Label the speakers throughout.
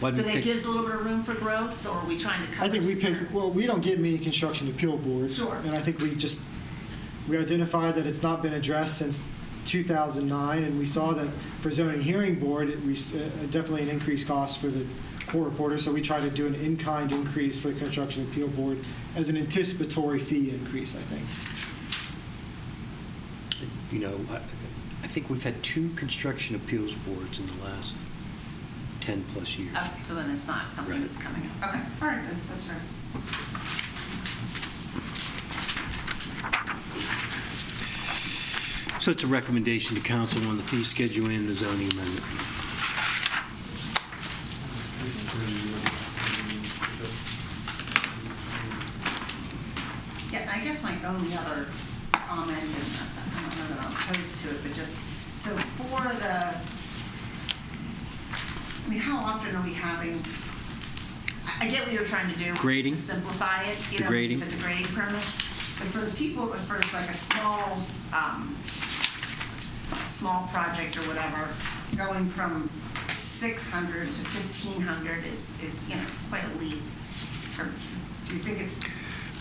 Speaker 1: Why
Speaker 2: Um,
Speaker 1: do
Speaker 2: Do
Speaker 1: we
Speaker 2: they
Speaker 1: pick-
Speaker 2: give us a little bit of room for growth, or are we trying to cover?
Speaker 3: I think we
Speaker 2: just
Speaker 3: pick,
Speaker 2: their-
Speaker 3: well, we don't get many construction appeal boards.
Speaker 2: Sure.
Speaker 3: And I think we just, we identified that it's not been addressed since 2009, and we saw that for zoning hearing board, it, we, s- uh, definitely an increased cost for the court reporter, so we tried to do an in-kind increase for the construction appeal board as an anticipatory fee increase, I think.
Speaker 1: You know, I, I think we've had two construction appeals boards in the last 10-plus years.
Speaker 2: Oh, so then it's not something
Speaker 1: Right.
Speaker 2: that's coming up. Okay, all right, good, that's fair.
Speaker 1: So it's a recommendation to council on the fee schedule and the zoning amendment.
Speaker 2: Yeah, I guess my only other comment, and I don't know that I'm opposed to it, but just, so for the, I mean, how often are we having, I I get what you're trying to do. which is to
Speaker 1: Grading.
Speaker 2: Simplify it, you
Speaker 1: The
Speaker 2: know,
Speaker 1: grading.
Speaker 2: for the grading permits. But for the people, for like a small, um, a small project or whatever, going from 600 to 1,500 is, is, you know, it's quite a leap. Or Do you think it's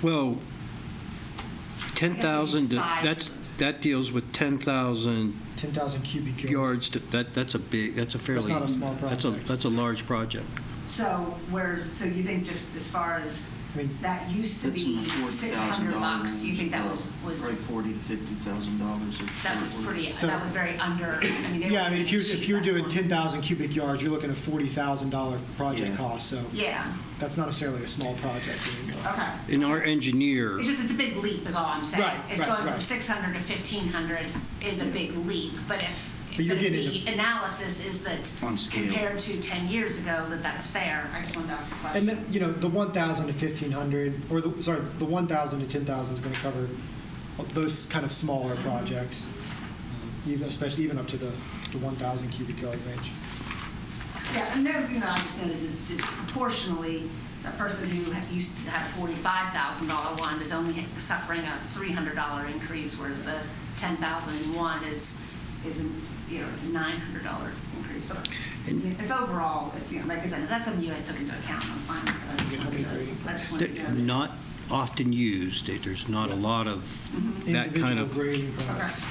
Speaker 1: Well, 10,000,
Speaker 2: I guess we decide.
Speaker 1: that's, that deals with 10,000
Speaker 3: 10,000 cubic yards.
Speaker 1: yards, to- that, that's a big, that's a fairly...
Speaker 3: not a small
Speaker 1: That's a,
Speaker 3: project.
Speaker 1: that's a large project.
Speaker 2: So whereas, so you think just as far as,
Speaker 3: I mean,
Speaker 2: that used to
Speaker 4: It's
Speaker 2: be
Speaker 4: in the
Speaker 2: six hundred
Speaker 4: $40,000
Speaker 2: bucks, you think that was, was,
Speaker 4: Probably forty to fifty thousand dollars.
Speaker 2: that was pretty,
Speaker 3: So-
Speaker 2: that was very under, I mean, they
Speaker 3: Yeah, I
Speaker 2: were
Speaker 3: mean, if you're,
Speaker 2: cheap
Speaker 3: if you're
Speaker 2: back
Speaker 3: doing
Speaker 2: then.
Speaker 3: 10,000 cubic yards, you're looking at $40,000 project
Speaker 4: Yeah.
Speaker 3: cost, so
Speaker 2: Yeah,
Speaker 3: that's not necessarily a small project anymore.
Speaker 2: okay.
Speaker 1: And our engineer,
Speaker 2: It's just, it's a big leap is all I'm saying.
Speaker 3: Right,
Speaker 2: It's
Speaker 3: right,
Speaker 2: going from
Speaker 3: right.
Speaker 2: six hundred to fifteen hundred is a big leap, but if,
Speaker 3: But you're
Speaker 2: but if
Speaker 3: getting-
Speaker 2: the analysis is that
Speaker 4: On scale.
Speaker 2: compared to ten years ago, that that's fair, I just wanted to ask the question.
Speaker 3: And then, you know, the 1,000 to 1,500, or the, sorry, the 1,000 to 10,000 is going to cover those kind of smaller
Speaker 1: Mm-hmm.
Speaker 3: projects, even, especially even up to the, the 1,000 cubic yard range.
Speaker 2: Yeah, and the other thing that I just noticed is is proportionally, the person who ha- used to have forty-five thousand dollar one is only suffering a three hundred dollar increase, whereas the ten thousand and one is, is, a, you know, it's a nine hundred dollar increase. But I mean, if overall, if, you know, like I said, if that's something you guys took into account, I'm fine with it. I just
Speaker 3: Yeah,
Speaker 2: wanted
Speaker 3: that'd be
Speaker 2: to- I just wanted to
Speaker 1: they're
Speaker 2: know.
Speaker 1: not often used, there's not a lot of that kind
Speaker 3: Mm-hmm. Individual
Speaker 1: of,
Speaker 3: grading
Speaker 2: Okay.
Speaker 3: projects.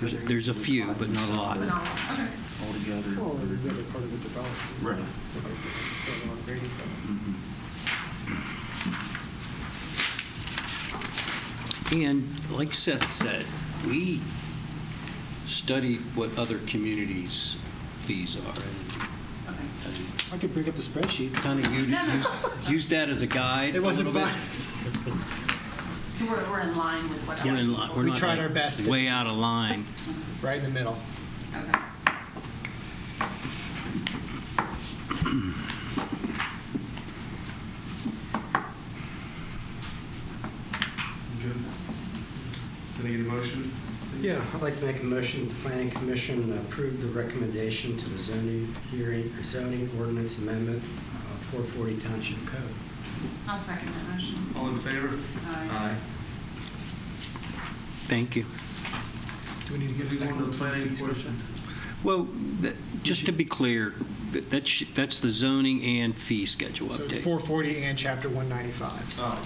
Speaker 1: there's a few, but not a lot.
Speaker 2: But no, okay.
Speaker 4: Altogether.
Speaker 3: Well,
Speaker 4: or-
Speaker 3: the other part of the development.
Speaker 4: Right.
Speaker 3: Still on grading plan.
Speaker 4: Mhm.
Speaker 1: And like Seth said, we studied what other communities' fees are
Speaker 2: Okay.
Speaker 1: and
Speaker 3: I could bring up the spreadsheet.
Speaker 1: kind of used, used that as a guide.
Speaker 3: It wasn't
Speaker 1: a little bit.
Speaker 3: fine.
Speaker 2: So we're, we're in line with what.
Speaker 1: We're in li- we're
Speaker 3: We
Speaker 1: not,
Speaker 3: tried
Speaker 1: like,
Speaker 3: our best.
Speaker 1: Way out of line.
Speaker 3: Right in the middle.
Speaker 2: Okay.
Speaker 5: Jim, Can I get a motion? please?
Speaker 6: Yeah, I'd like to make a motion, the planning commission approve the recommendation to the zoning hearing, or zoning ordinance amendment uh, 440 Township Code.
Speaker 2: I'll second that motion.
Speaker 5: All in favor?
Speaker 2: Aye.
Speaker 1: Thank you.
Speaker 3: Do we need to
Speaker 5: Do
Speaker 3: get a
Speaker 5: we
Speaker 3: second?
Speaker 5: want the planning portion?
Speaker 1: Well, that, just to be clear, that, that sh- that's the zoning and fee schedule
Speaker 3: So it's
Speaker 1: update.
Speaker 3: 440 and chapter 195.
Speaker 5: Oh,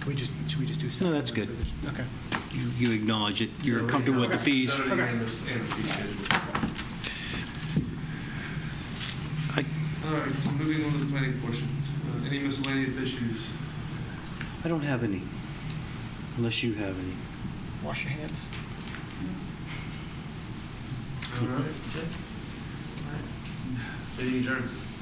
Speaker 3: Can we just, should we just do?
Speaker 1: No, that's good.
Speaker 3: Okay.
Speaker 1: You- You acknowledge it, you're comfortable with the fees.
Speaker 5: Zoning And the and the fee schedule.
Speaker 1: I-
Speaker 5: All right, moving on to the planning portion. Uh, Any miscellaneous issues?
Speaker 1: I don't have any, unless you have any.
Speaker 3: Wash your hands.
Speaker 5: All right. Meeting adjourned.